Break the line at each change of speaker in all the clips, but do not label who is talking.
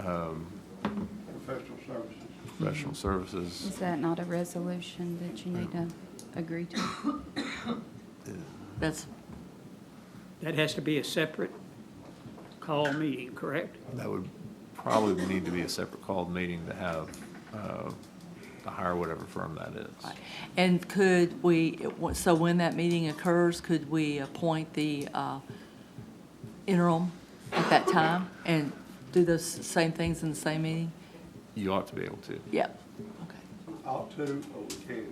um,
professional services.
professional services.
Is that not a resolution that you need to agree to?
That's,
That has to be a separate call meeting, correct?
That would probably need to be a separate called meeting to have, uh, to hire whatever firm that is.
and could we, so when that meeting occurs, could we appoint the uh, interim at that time and do those same things in the same meeting?
You ought to be able to.
Yep, okay.
Ought to or we can.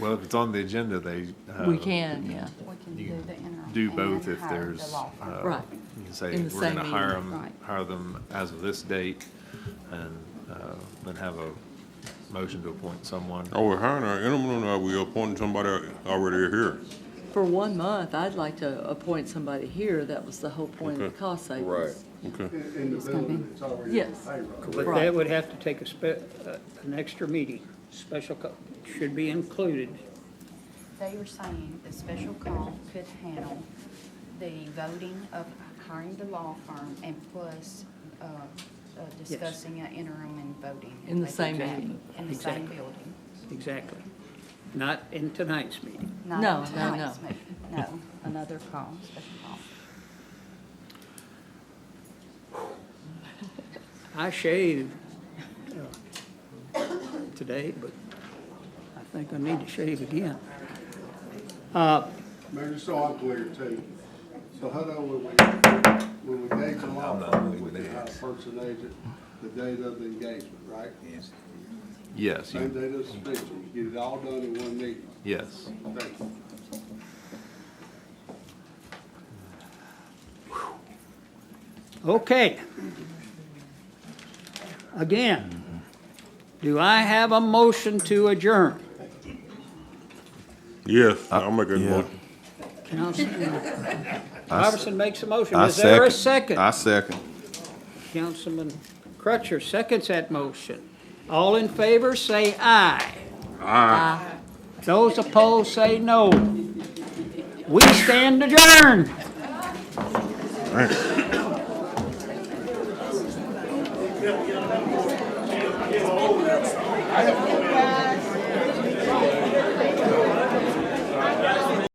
Well, if it's on the agenda, they. uh,
We can, yeah.
We can
You
do
can
the interim.
Do
and then
both if
hire the
there's.
law firm.
uh,
Right.
You can say,
In the
we're going to
same
hire
meeting."
them,
Right.
hire them as of this date, and uh, then have a motion to appoint someone.
Are we Oh, hiring our interim, or are we appointing somebody already here?
For one month, I'd like to appoint somebody here. That was the whole point of the
Okay.
cost savings.
Right.
Okay.
In, in the building, it's already on
Yes.
payroll.
But
Right.
that would have to take a spe, uh, an extra meeting, special, co- should be included.
They were saying the special call could handle the voting of hiring the law firm and plus uh, uh, discussing an interim and voting.
In the
They could
same
do that
meeting.
In the same
Exactly.
building.
Exactly. Not in tonight's meeting.
Not
No, no,
tonight's
no.
meeting. No, another call, special call.
I shaved uh, today, but I think I need to shave again.
Maybe so I'm clear too. So how do we, when we engage a law firm, we can hire a person agent the date of the engagement, right?
Yes,
Same
you-
date of suspension, get it all done in one meeting.
yes.
Thank you.
Okay. Again, do I have a motion to adjourn?
Yes, I'll make that motion.
Councilman
I s-
Iverson makes a motion.
I
Is there a
second.
second?
I second.
Councilman Crutcher seconds that motion. All in favor, say aye. Aye. Those opposed, say no. We stand adjourned.
Guys,